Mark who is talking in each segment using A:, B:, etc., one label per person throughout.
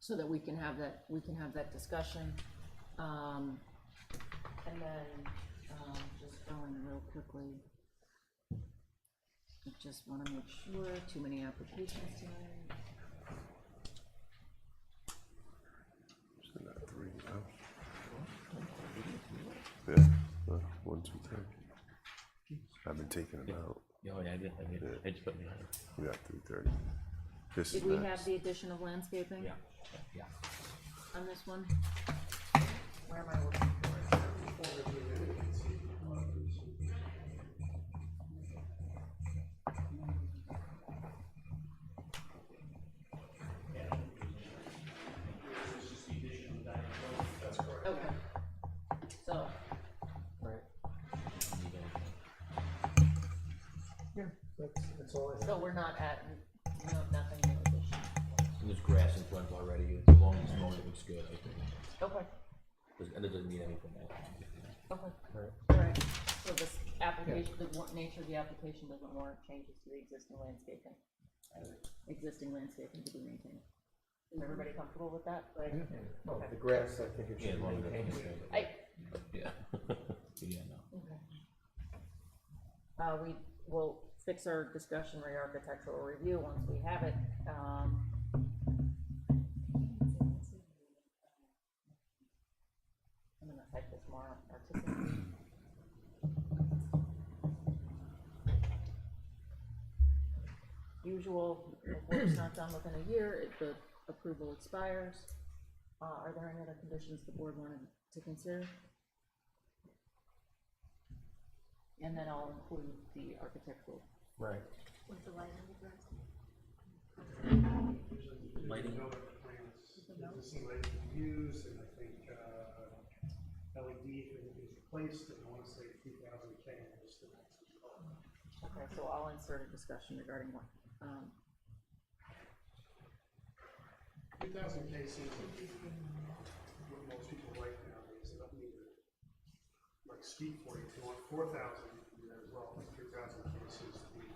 A: so that we can have that, we can have that discussion. Um, and then, um, just going real quickly. I Just wanna make sure, too many applications tonight.
B: Isn't that three now? Yeah, uh, one, two, three. I've been taking them out.
C: Oh, yeah, I did, I did, I just put behind,
B: We got three thirty. This is
A: Did we have
B: next.
A: the addition of landscaping?
C: yeah, yeah.
A: on this one? Where am I looking for? Okay, so,
C: You go.
D: Yeah, that's, that's all I have.
A: so we're not at, no, nothing in addition.
C: There's grass in front already, as long as it's mowed, it looks good, I think.
A: Okay,
C: Does- And it doesn't need anything else.
A: okay, alright, so this application, the wa- nature of the application doesn't warrant changes to the existing landscaping, existing landscaping to be maintained. Is everybody comfortable with that? Like,
D: No, Oh, the grass, I think it
C: Yeah,
D: should
C: as long as
D: maintain.
C: it's
A: I,
C: Yeah. Yeah, no.
A: Okay. Uh, we will fix our discussion re-architectural review once we have it, um. I'm gonna type this more articulately. Usual, if work's not done within a year, if the approval expires. Uh, are there any other conditions the board wanted to consider? And then I'll include the architectural.
D: Right.
E: With the light on the grass.
C: Lighting,
F: Existing lighting used, and I think, uh, LED if it is replaced, and I wanna say two thousand K is the next.
A: Okay, so I'll insert a discussion regarding what, um,
F: Two thousand K seems like what most people like nowadays, and I don't need to, like, speak for you, if you want four thousand, you can do that as well, but three thousand K seems to be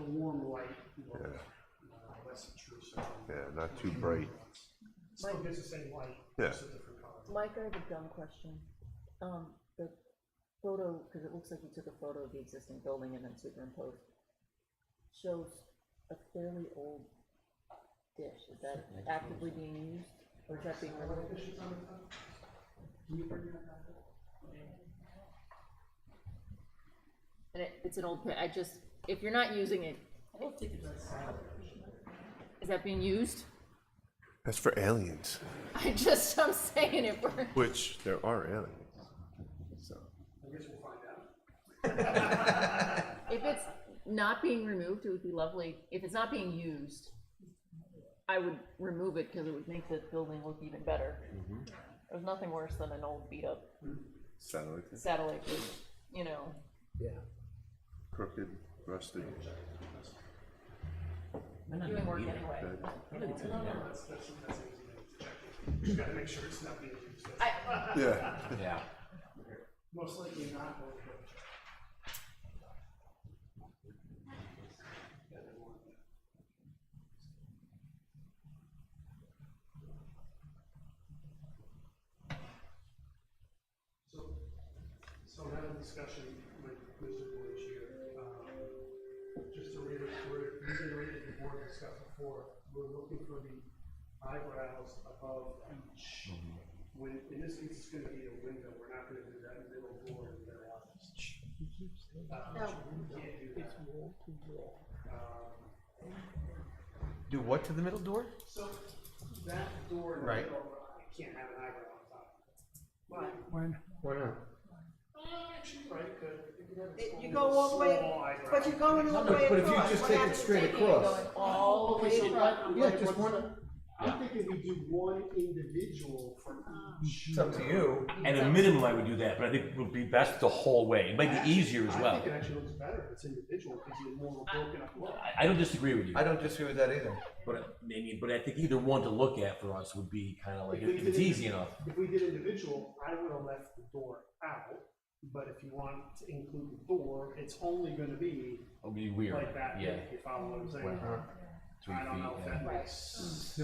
F: the warm light, you know, uh, less intrusive.
B: Yeah, not too bright.
F: Still gives the same light,
B: Yeah.
F: just a different color.
A: Mike, I have a dumb question. Um, the photo, because it looks like you took a photo of the existing building and then superimposed, shows a fairly old dish. Is that actively being used, or is that being removed? And it, it's an old, pi- I just, if you're not using it. Is that being used?
B: That's for aliens,
A: I just, I'm saying it, we're.
B: which there are aliens. So,
F: I guess we'll find out.
A: If it's not being removed, it would be lovely, if it's not being used, I would remove it because it would make the building look even better.
F: Mm-hmm.
A: There's nothing worse than an old beat up
B: satellite,
A: satellite dish, you know,
B: crooked, rusted.
A: doing work anyway.
F: That's, that's, that's easy to check. Just gotta make sure it's not being used. That's-
A: I,
B: Yeah.
C: yeah.
F: Most likely not, but- but. Yeah, they want that. So, so I had a discussion with Mr. Boyd here, um, just to reiterate, reiterate the board discussed before, we're looking for the eyebrows above each. When, in this case, it's gonna be a window, we're not gonna do that middle door in their office. Uh, we can't do that. Um,
D: Do what to the middle door?
F: So, that door in the
D: Right.
F: middle, I can't have an eyebrow on top. But
D: Why not?
F: uh, actually, right, could, you could have a
G: It-
F: small.
G: You go all the
F: small
G: way,
F: eyebrow.
G: but you're going all the way across.
D: But if you just
G: What
D: take it
G: happens-
D: straight across.
A: all the way
F: So,
A: to
F: I'm
D: Yeah,
F: like,
D: just
F: what's
D: one-
F: the- I'm thinking we do one individual from each.
D: It's up to you.
C: At a minimum, I would do that, but I think it would be best the whole way. It might be easier as
F: I
C: well.
F: think it actually looks better if it's individual, because you're more broken up. look.
C: I, I don't disagree with you,
D: I don't disagree with that either.
C: but I mean, but I think either one to look at for us would be kind of like,
F: If we
C: if it's
F: did-
C: easy enough.
F: If we did individual, I would have left the door out, but if you want to include the door, it's only gonna be
C: It would be weird,
F: like that,
C: yeah.
F: if you follow what I'm saying.
C: Three
F: I don't know
C: feet,
F: if
C: yeah.
F: that makes